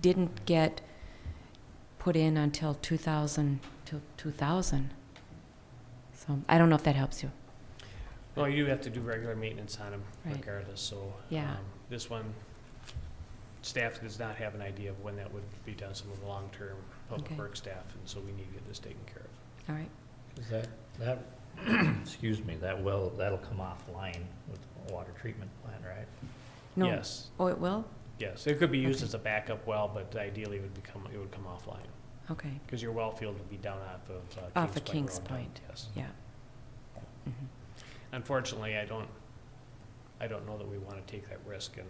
didn't get put in until 2000, till 2000. So I don't know if that helps you. Well, you do have to do regular maintenance on them Right. regardless, so. Yeah. um, This one, staff does not have an idea of when that would be done, some of the long-term public Okay. work staff, and so we need to get this taken care of. All right. Is that, that, excuse me, that well, that'll come offline with the water treatment plant, right? No. Yes, Oh, it will? yes. It could be used Okay. as a backup well, but ideally it would become, it would come offline, Okay, because your well field would be down off of uh, Kings Point. Off of Kings Road, Point. Yes. yeah. Mhm. Unfortunately, I don't, I don't know that we want to take that risk and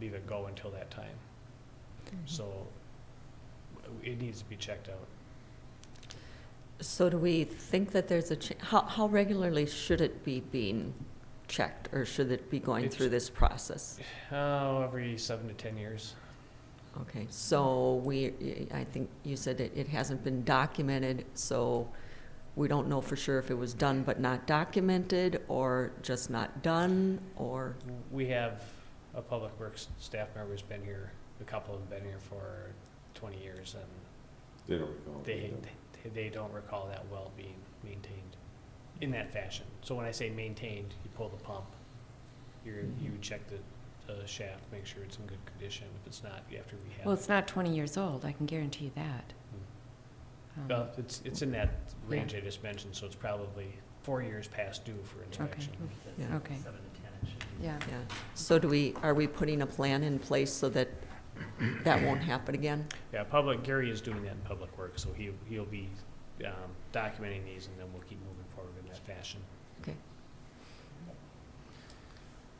leave it go until that time. Mm-hmm. Mm-hmm. So w- it needs to be checked out. So do we think that there's a, cha- how, how regularly should it be being checked, or should it be going through this process? Oh, every seven to ten years. Okay, so we, I think you said it, it hasn't been documented, so we don't know for sure if it was done but not documented, or just not done, or, We have a public works staff member who's been here, a couple have been here for twenty years and They don't recall. they, they- they don't recall that well being maintained in that fashion. So when I say maintained, you pull the pump, you're, you check the, the shaft, make sure it's in good condition. If it's not, you have to rehab Well, it. it's not 20 years old, I can guarantee that. Um, Mm. Well, it's, it's in that range I just mentioned, so it's probably four years past due for inspection. yeah, Okay, Seven to ten, it should be. yeah. yeah. So do we, are we putting a plan in place so that that won't happen again? Yeah, public, Gary is doing that in public work, so he, he'll be um, documenting these and then we'll keep moving forward in that fashion. Okay.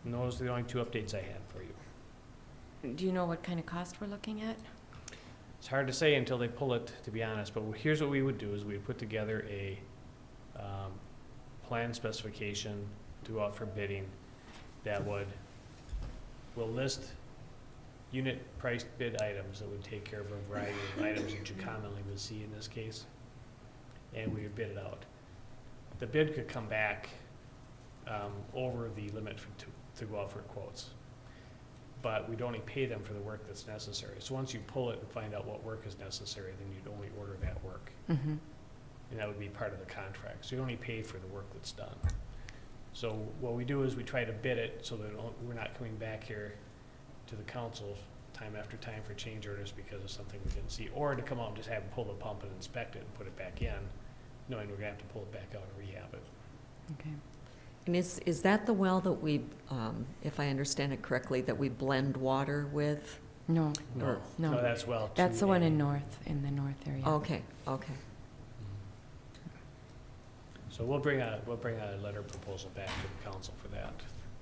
And those are the only two updates I had for you. Do you know what kind of cost we're looking at? It's hard to say until they pull it, to be honest, but here's what we would do, is we'd put together a um, plan specification throughout for bidding that would, will list unit priced bid items that would take care of a variety of items that you commonly would see in this case, and we would bid it out. The bid could come back um, over the limit for, to, to go out for quotes but we'd only pay them for the work that's necessary. So once you pull it and find out what work is necessary, then you'd only order that work. Mhm. And that would be part of the contract. So you only pay for the work that's done. So what we do is we try to bid it so that o- we're not coming back here to the council time after time for change orders because of something we didn't see. Or to come out and just have them pull the pump and inspect it and put it back in, knowing we're gonna have to pull it back out and rehab it. Okay. And is, is that the well that we, um, if I understand it correctly, that we blend water with? No, No. No. No, that's well. that's the one in 2A. north, in the north area. Okay, okay. So we'll bring a, we'll bring a letter proposal back to the council for that.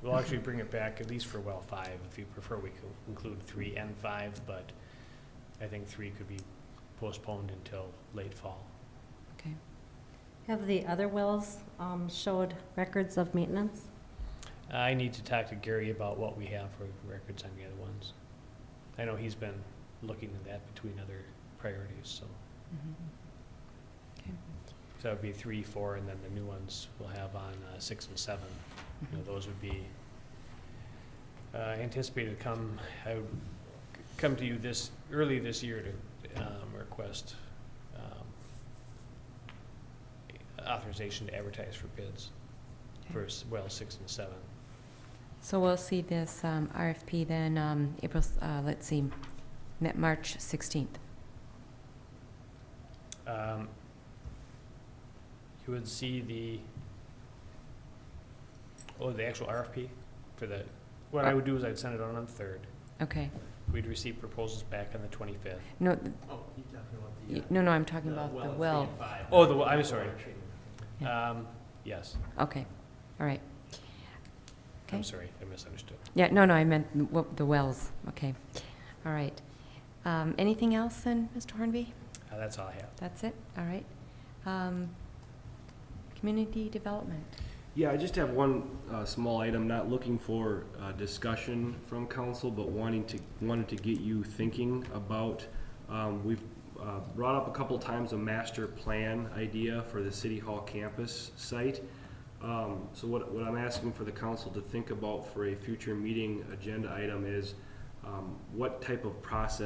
We'll actually bring it back at least for well five, if you prefer, we could include three and five, but I think three could be postponed until late fall. Okay. Have the other wells um, showed records of maintenance? I need to talk to Gary about what we have for records on the other ones. I know he's been looking at that between other priorities, so Mhm. Mm-hmm. Okay. so that would be three, four, and then the new ones we'll have on uh, six and seven. You know, Mhm. those would be uh, anticipated to come, I would c- come to you this, early this year to um, request um, authorization to advertise for bids for, Okay. s- well, six and seven. So we'll see this um, RFP then, um, April, s- uh, let's see, Ma- March 16th. Um, You would see the, oh, the actual RFP for the, what Uh, I would do is I'd send it on on the third. Okay. We'd receive proposals back on the twenty-fifth. No, th- Oh, you're talking about y- no, no, I'm talking about uh, the well. Oh, the well, I'm sorry. Um, Yes, Okay, all right. I'm Okay. sorry, I misunderstood. Yeah, no, no, I meant the wel- the wells. Okay, all right. Um, Anything else then, Mr. Hornby? Uh, That's all I have. That's it? All right. Um, Community development. Yeah, I just have one uh, small item, not looking for uh, discussion from council, but wanting to, wanted to get you thinking about, um, we've uh, brought up a couple times a master plan idea for the City Hall campus site. Um, So what, what I'm asking for the council to think about for a future meeting agenda item is um, what type of process